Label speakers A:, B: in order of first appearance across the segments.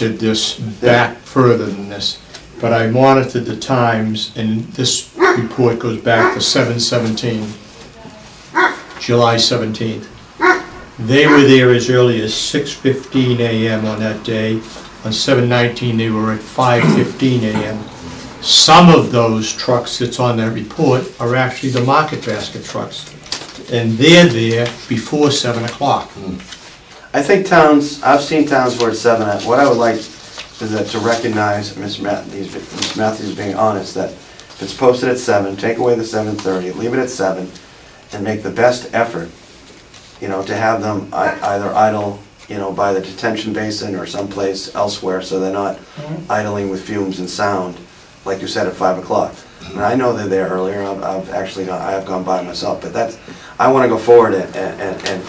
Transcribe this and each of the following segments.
A: did this back further than this, but I monitored the times, and this report goes back to seven seventeen, July seventeenth. They were there as early as six fifteen AM on that day. On seven nineteen, they were at five fifteen AM. Some of those trucks that's on that report are actually the market basket trucks, and they're there before seven o'clock.
B: I think towns, I've seen towns where it's seven, what I would like is that to recognize Ms. Matthews, Ms. Matthews being honest, that if it's posted at seven, take away the seven thirty, leave it at seven, and make the best effort, you know, to have them ei- either idle, you know, by the detention basin or someplace elsewhere, so they're not idling with fumes and sound, like you said, at five o'clock. And I know they're there earlier, I've, I've actually, gone- I have gone by myself, but that's, I wanna go forward and, and, and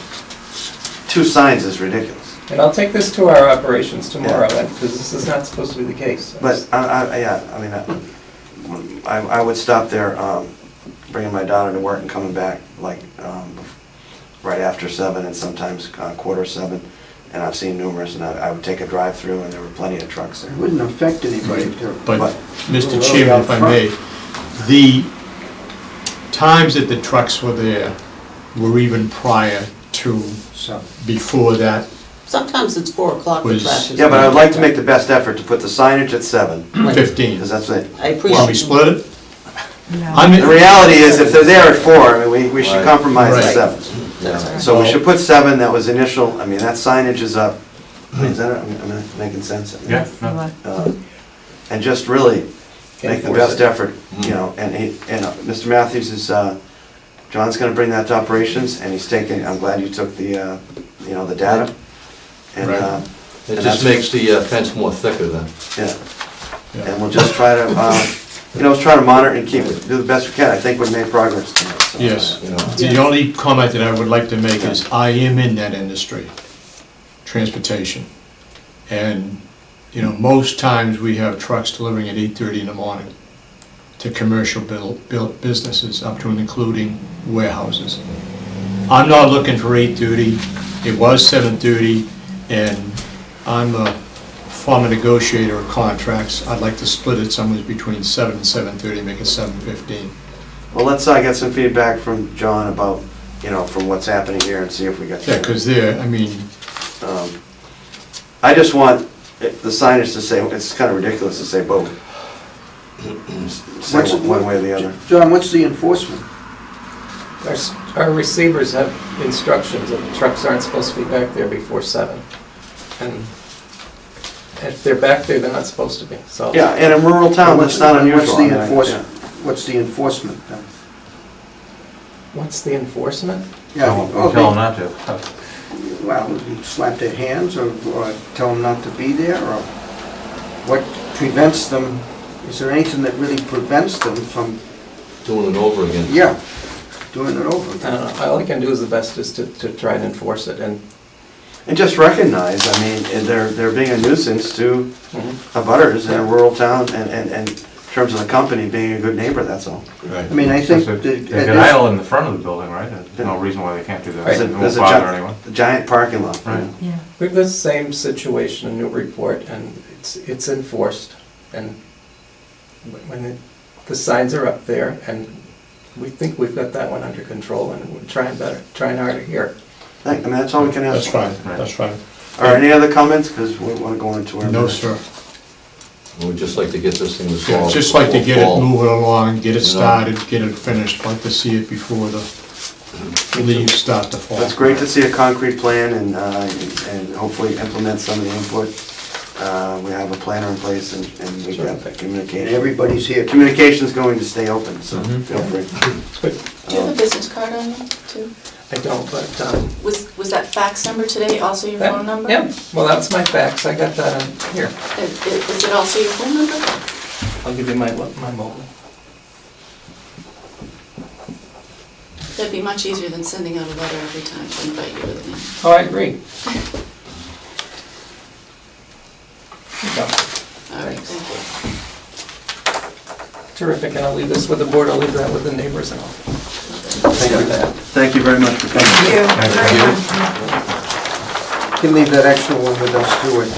B: two signs is ridiculous.
C: And I'll take this to our operations tomorrow, because this is not supposed to be the case.
B: But, I, I, yeah, I mean, I, I I would stop there, um, bringing my daughter to work and coming back, like, um, right after seven and sometimes uh, quarter seven. And I've seen numerous, and I, I would take a drive-through and there were plenty of trucks there.
D: Wouldn't affect anybody if they're.
B: But-
A: But, Mr. Chairman, if I may, the times that the trucks were there were even prior to,
D: So,
A: before that.
E: Sometimes it's four o'clock that
A: Was-
E: flashes.
B: Yeah, but I'd like to make the best effort to put the signage at seven,
E: Like,
A: 15.
B: because that's it.
E: I
A: Well, we
E: appreciate.
A: split it? I'm-
B: The reality is, if they're there at four, I mean, we, we should
F: Right.
B: compromise at
A: Right.
B: seven.
E: That's all right.
B: So we should put seven, that was initial, I mean, that signage is up. I mean, Is that, am I making sense?
F: Yeah, no.
G: Oh.
B: Uh, And just really
C: Can't
B: make the
C: force
B: best
C: it.
B: effort, you know, and he, and uh, Mr. Matthews is, uh, John's gonna bring that to operations, and he's taking, I'm glad you took the, uh, you know, the data. And, uh,
A: Right.
B: and
F: It
B: that's-
F: just makes the uh, fence more thicker then.
B: yeah,
A: Yeah.
B: and we'll just try to, uh, you know, try to monitor and keep, do the best we can. I think we've made progress tonight. so.
A: Yes.
F: you know.
A: The only comment that I would like to make is, I am in that industry, transportation. And, you know, most times we have trucks delivering at 8:30 in the morning to commercial buil- buil- businesses, up to and including warehouses. I'm not looking for 8:30, it was 7:30, and I'm a former negotiator of contracts. I'd like to split it somewhere between 7 and 7:30, make it 7:15.
B: Well, let's, uh, get some feedback from John about, you know, from what's happening here and see if we got.
A: Yeah, because there, I mean,
B: Um, I just want it- the signage to say, it's kind of ridiculous to say both. Say
D: What's-
B: one one way or the other.
D: John, what's the enforcement?
C: Our s- Our receivers have instructions that the trucks aren't supposed to be back there before seven. And if they're back there, they're not supposed to be, so.
B: Yeah, in a rural town, that's not unusual.
D: What's
B: I mean,
D: the
B: I-
D: enforcement, what's the enforcement then?
C: What's the enforcement?
D: Yeah,
H: We tell them not to.
D: okay. Well, you slap their hands or, or tell them not to be there or what prevents them? Is there anything that really prevents them from,
F: Doing it over again.
D: yeah, doing it over?
C: I don't know. All I can do is the best is to, to try and enforce it, and
B: And just recognize, I mean, eh, they're, they're being a nuisance to abutters in a rural town and, and, and in terms of the company being a good neighbor, that's all.
F: Right.
D: I mean, I think that.
H: Because They
D: at
H: they could
D: this-
H: idle in the front of the building, right? There's no reason why they can't do that.
C: Right.
H: It
B: There's a-
H: won't
B: there's a
H: bother
B: gi-
H: anyone.
B: Giant parking lot.
H: Right.
G: Yeah.
C: We have the same situation in Newburyport, and it's, it's enforced, and when- when it- the signs are up there, and we think we've got that one under control, and we're trying better, trying harder here.
B: I mean, that's all we can
A: that's
B: ask.
A: fine,
H: Right.
A: that's fine.
B: Or any other comments, because we want to go into our.
A: No, sir.
F: We'd just like to get this thing
A: Yeah,
F: resolved.
A: Just like to get it
F: before fall.
A: moving along, get it
F: You know.
A: started, get it finished, like to see it before the
F: Mm-hmm.
A: leaves start to fall.
B: It's great to see a concrete plan and, uh, and hopefully implement some of the input. Uh, We have a planner in place and and we have
C: Terrific.
D: And
B: communication.
D: everybody's here.
B: Communication's going to stay open, so feel free.
C: But
E: Do you have a business card on you too?
C: I don't, but, um...
G: Was, was that fax number today also your
C: that-
G: phone number?
C: Yeah, well, that's my fax, I got that on, here,
G: I- i- Is, it also your phone number?
C: I'll give you my, lo- my mobile.
G: That'd be much easier than sending out a letter every time to invite you to the meeting.
C: Oh, I agree. Here you go.
G: All right, thank you.
C: Terrific, and I'll leave this with the board, I'll leave that with the neighbors and all.
B: Thank you. Thank you very much for coming.
H: Thank you.
D: Can leave that extra one with us too, I think.